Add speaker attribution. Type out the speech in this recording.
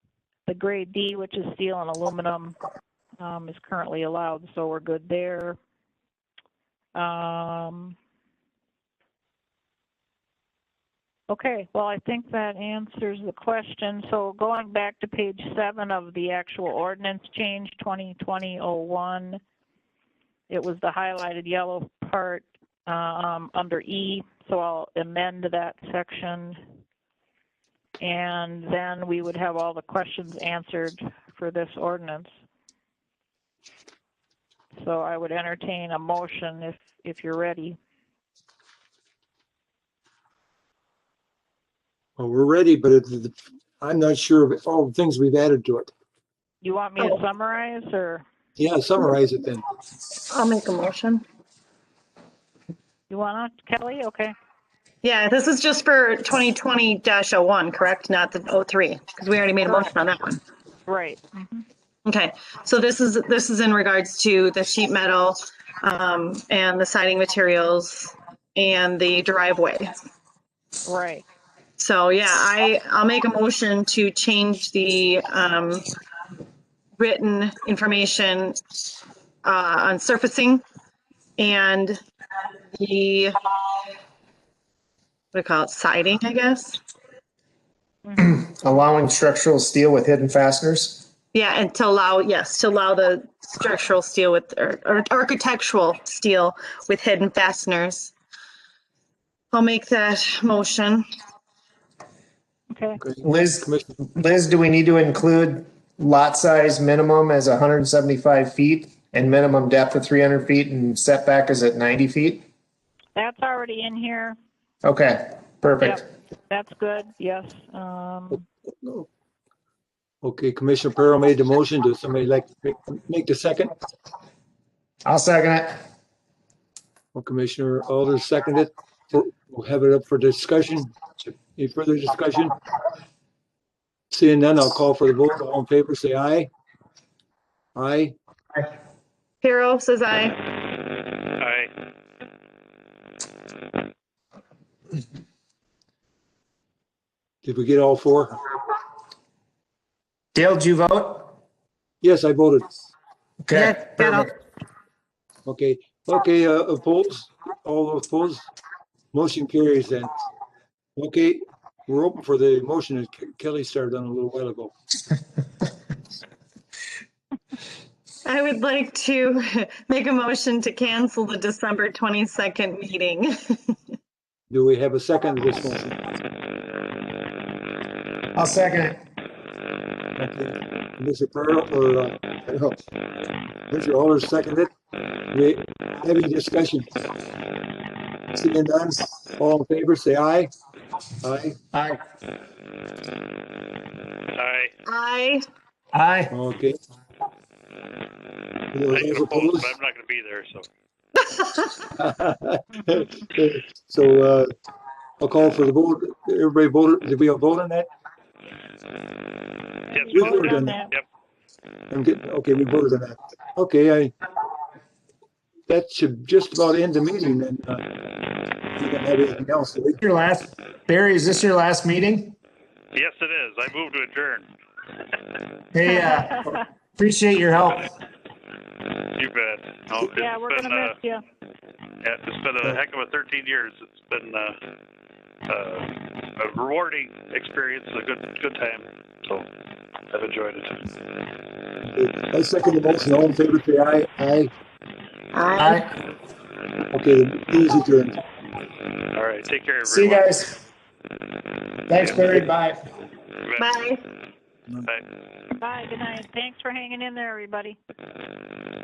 Speaker 1: the grade D, which is steel and aluminum, um, is currently allowed, so we're good there. Um, okay, well, I think that answers the question. So going back to page seven of the actual ordinance change, 2020-01, it was the highlighted yellow part um, under E, so I'll amend that section. And then we would have all the questions answered for this ordinance. So I would entertain a motion if, if you're ready.
Speaker 2: Well, we're ready, but it, the- I'm not sure of all the things we've added to it.
Speaker 1: You want me to summarize or
Speaker 2: Yeah, summarize it then.
Speaker 3: I'll make a motion.
Speaker 1: you want to, Kelly? Okay.
Speaker 3: Yeah, this is just for 2020-01, correct? Not the 03, because we already made a motion on that one.
Speaker 1: Right.
Speaker 3: Okay, so this is, this is in regards to the sheet metal um, and the siding materials and the driveway.
Speaker 1: Right.
Speaker 3: So yeah, I, I'll make a motion to change the um, written information uh, on surfacing and the, what do you call it, siding, I guess?
Speaker 4: allowing structural steel with hidden fasteners.
Speaker 3: Yeah, and to allow, yes, to allow the structural steel with, or or architectural steel with hidden fasteners. I'll make that motion.
Speaker 1: Okay.
Speaker 4: Liz,
Speaker 2: Commissioner,
Speaker 4: Liz, do we need to include lot size minimum as 175 feet and minimum depth of 300 feet and setback is at 90 feet?
Speaker 1: That's already in here.
Speaker 4: Okay, perfect.
Speaker 1: Yep. That's good. Yes. Um,
Speaker 2: Okay, Commissioner Perro made the motion. Does somebody like to make- make the second?
Speaker 4: I'll second it.
Speaker 2: Well, Commissioner Alder seconded. We'll we'll have it up for discussion. Any further discussion? Seeing none, I'll call for the vote. All in favor, say aye. Aye.
Speaker 3: Hero says aye.
Speaker 5: Aye.
Speaker 2: Did we get all four?
Speaker 4: Dale, did you vote?
Speaker 2: Yes, I voted.
Speaker 4: Okay, perfect.
Speaker 2: Okay, okay, uh, opposed? All opposed? Motion carries then. Okay, we're open for the motion that Ke- Kelly started on a little while ago.
Speaker 3: I would like to make a motion to cancel the December 22nd meeting.
Speaker 2: Do we have a second to this motion?
Speaker 4: I'll second it.
Speaker 2: Okay. Mr. Pearl, or, uh, no. Mr. Aller seconded. We, any discussion? Seeing none, all in favor, say aye. Aye.
Speaker 4: Aye.
Speaker 5: Aye.
Speaker 3: Aye.
Speaker 4: Aye.
Speaker 2: Okay.
Speaker 5: I
Speaker 2: Those
Speaker 5: can oppose,
Speaker 2: opposed?
Speaker 5: but I'm not gonna be there, so.
Speaker 2: So, uh, I'll call for the vote. Everybody voted, did we all vote on that?
Speaker 5: Yes,
Speaker 2: Yes,
Speaker 1: vote
Speaker 2: we're
Speaker 1: on
Speaker 2: done.
Speaker 1: that.
Speaker 2: I'm getting, okay, we voted on that. Okay, I, that should just about end the meeting then. uh, If you don't have anything else, do we?
Speaker 4: Your last, Barry, is this your last meeting?
Speaker 5: yes, it is. I move to adjourn.
Speaker 4: Hey, uh, appreciate your help.
Speaker 5: You bet. No, it's
Speaker 1: yeah, we're
Speaker 5: been,
Speaker 1: going to miss you.
Speaker 5: uh, yeah, It's been a heck of a thirteen years. It's been, uh, uh, a rewarding experience, a good, good time. So I've enjoyed it.
Speaker 2: I second the motion. All in favor, say aye. Aye.
Speaker 3: Aye.
Speaker 4: Aye.
Speaker 2: Okay, the meeting's adjourned.
Speaker 5: All right, take care, everyone.
Speaker 4: See you guys. Thanks, Barry. Bye.
Speaker 5: You bet.
Speaker 3: Bye.
Speaker 5: Bye.
Speaker 1: Bye. Good night. Thanks for hanging in there, everybody.